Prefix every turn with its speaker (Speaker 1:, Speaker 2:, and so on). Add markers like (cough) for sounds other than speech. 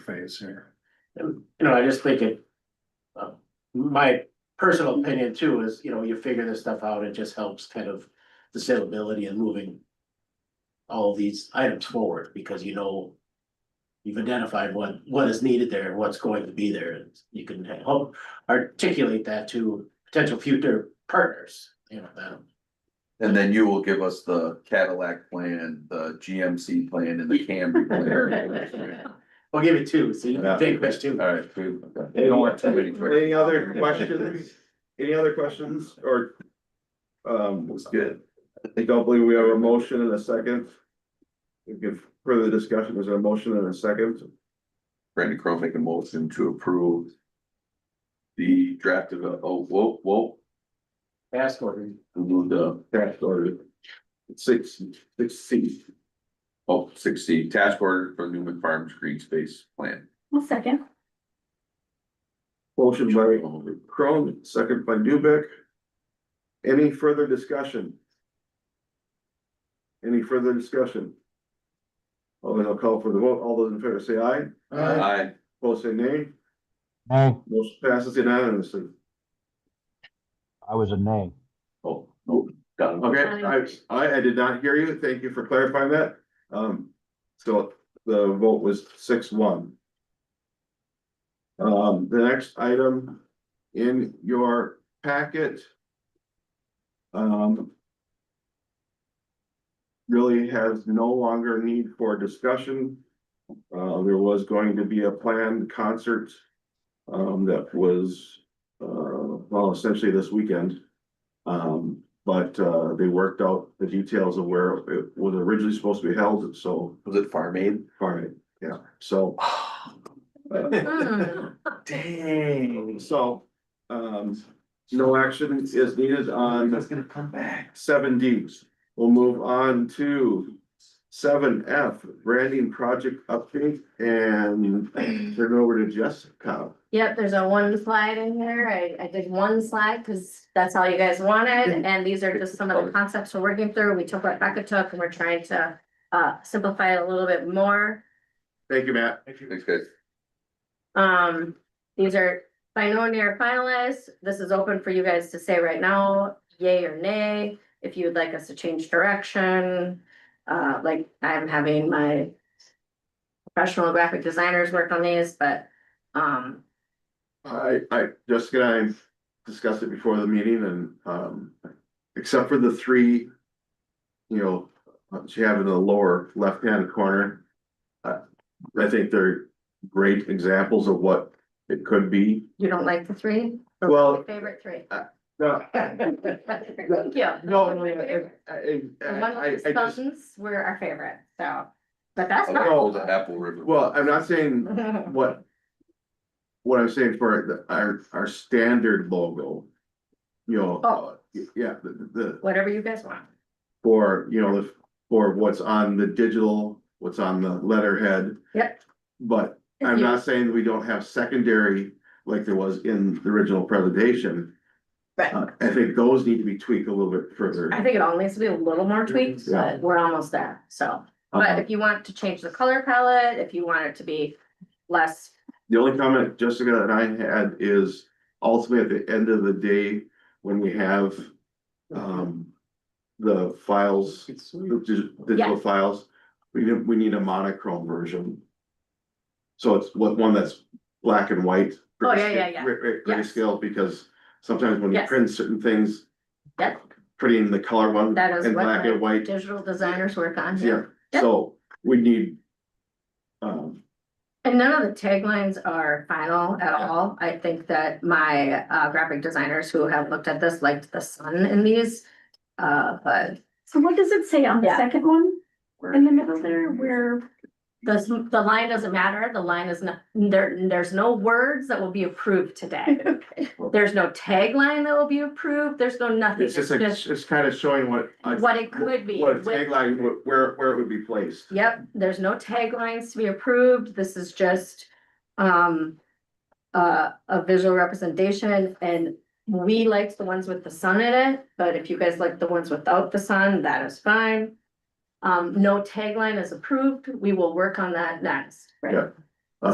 Speaker 1: is here.
Speaker 2: And, you know, I just think it. uh, My personal opinion too is, you know, you figure this stuff out, it just helps kind of the saleability and moving. All these items forward because you know. You've identified what what is needed there, and what's going to be there, and you can help articulate that to potential future partners, you know, that.
Speaker 3: And then you will give us the Cadillac plan, the GMC plan and the
Speaker 2: (laughs)
Speaker 3: Camry plan.
Speaker 2: I'll give it two, so you can take question.
Speaker 3: All right, we- okay.
Speaker 4: Any-
Speaker 3: We don't want too
Speaker 4: (laughs)
Speaker 3: many questions.
Speaker 4: Any other questions? Any other questions or? Um, looks good. I don't believe we have a motion and a second. We give further discussion. Is there a motion and a second?
Speaker 3: Brandon Crowe make a motion to approve. The draft of, oh, whoa, whoa,
Speaker 2: Ask order.
Speaker 3: who moved up?
Speaker 4: Task order. Six, six C.
Speaker 3: Oh, six C, task order for Newman Farms Green Space Plan.
Speaker 5: One second.
Speaker 4: Motion by Crone, second by Dubek. Any further discussion? Any further discussion? Well, then I'll call for the vote. All those in favor say aye.
Speaker 3: Aye.
Speaker 4: Opposed say nay.
Speaker 6: No,
Speaker 4: Motion passes unanimously.
Speaker 6: I was a nay.
Speaker 3: oh, no, done.
Speaker 4: Um, Okay, I, I, I did not hear you. Thank you for clarifying that. Um, so the vote was six one. Um, the next item in your packet. Um. Really has no longer need for discussion. Uh, there was going to be a planned concert. Um, that was, uh, well, essentially this weekend. Um, but uh they worked out the details of where it was originally supposed to be held, so,
Speaker 3: Was it Farm Aid?
Speaker 4: alright, yeah, so.
Speaker 5: Hmm.
Speaker 3: Dang.
Speaker 4: So, um, no action is needed on
Speaker 3: gonna come back.
Speaker 4: seven Ds. We'll move on to seven F, branding project update and turn it over to Jessica.
Speaker 5: Yep, there's a one slide in here. I, I did one slide because that's all you guys wanted, and these are just some of the concepts we're working through. We took what Becca took and we're trying to uh, simplify it a little bit more.
Speaker 4: Thank you, Matt.
Speaker 3: Thanks, guys.
Speaker 5: Um, these are by no near finalists. This is open for you guys to say right now, yay or nay, if you would like us to change direction. Uh, like I'm having my professional graphic designers work on these, but um,
Speaker 4: I, I, Jessica and I discussed it before the meeting and, um, except for the three. You know, uh, she had in the lower left-hand corner. Uh, I think they're great examples of what it could be.
Speaker 5: you don't like the three?
Speaker 4: Well,
Speaker 5: Favorite three.
Speaker 4: no,
Speaker 5: Thank you.
Speaker 4: no, no, yeah, I, I,
Speaker 5: The one
Speaker 4: I,
Speaker 5: with
Speaker 4: I
Speaker 5: the
Speaker 4: just,
Speaker 5: sons were our favorite, so, but that's
Speaker 3: Oh,
Speaker 5: not.
Speaker 3: that was an Apple River.
Speaker 4: well, I'm not saying what. What I'm saying for the- our, our standard logo. You know, uh, yeah, the, the,
Speaker 5: Whatever you guys want.
Speaker 4: For, you know, the- for what's on the digital, what's on the letterhead.
Speaker 5: Yep.
Speaker 4: But
Speaker 5: If
Speaker 4: I'm
Speaker 5: you-
Speaker 4: not saying that we don't have secondary like there was in the original presentation.
Speaker 5: Right.
Speaker 4: Uh, I think those need to be tweaked a little bit further.
Speaker 5: I think it all needs to be a little more tweaked,
Speaker 4: Yeah.
Speaker 5: but we're almost there, so. But
Speaker 4: Uh,
Speaker 5: if you want to change the color palette, if you want it to be less,
Speaker 4: The only comment Jessica and I had is ultimately at the end of the day, when we have
Speaker 2: Oh,
Speaker 4: um the files, the dig- digital files, we need, we need a monochrome version. So it's what, one that's black and white.
Speaker 5: Oh, yeah, yeah, yeah.
Speaker 4: gray- gray-
Speaker 5: Yes.
Speaker 4: Grayscale, because sometimes when you
Speaker 5: Yes.
Speaker 4: print certain things.
Speaker 5: Yep.
Speaker 4: Putting the color one
Speaker 5: That is
Speaker 4: in
Speaker 5: what
Speaker 4: black
Speaker 5: my
Speaker 4: and white,
Speaker 5: digital designers work on
Speaker 4: yeah,
Speaker 5: here. Yep.
Speaker 4: so we need. Um,
Speaker 5: And none of the taglines are final at all. I think that my uh graphic designers who have looked at this liked the sun in these. Uh, but
Speaker 7: So what does it say on the
Speaker 5: Yeah.
Speaker 7: second one? In the middle there, where,
Speaker 5: The, s- the line doesn't matter, the line is not, there, there's no words that will be approved today. There's no tagline that will be approved, there's no nothing,
Speaker 4: it's
Speaker 5: it's
Speaker 4: just, like-
Speaker 5: just
Speaker 4: it's kind of showing what. I-
Speaker 5: what it could be.
Speaker 4: What a
Speaker 5: with-
Speaker 4: tagline, wh- where, where it would be placed.
Speaker 5: Yep, there's no taglines to be approved, this is just, um. Uh, a visual representation and we liked the ones with the sun in it, but if you guys like the ones without the sun, that is fine. Um, no tagline is approved, we will work on that next,
Speaker 4: Yeah.
Speaker 5: right?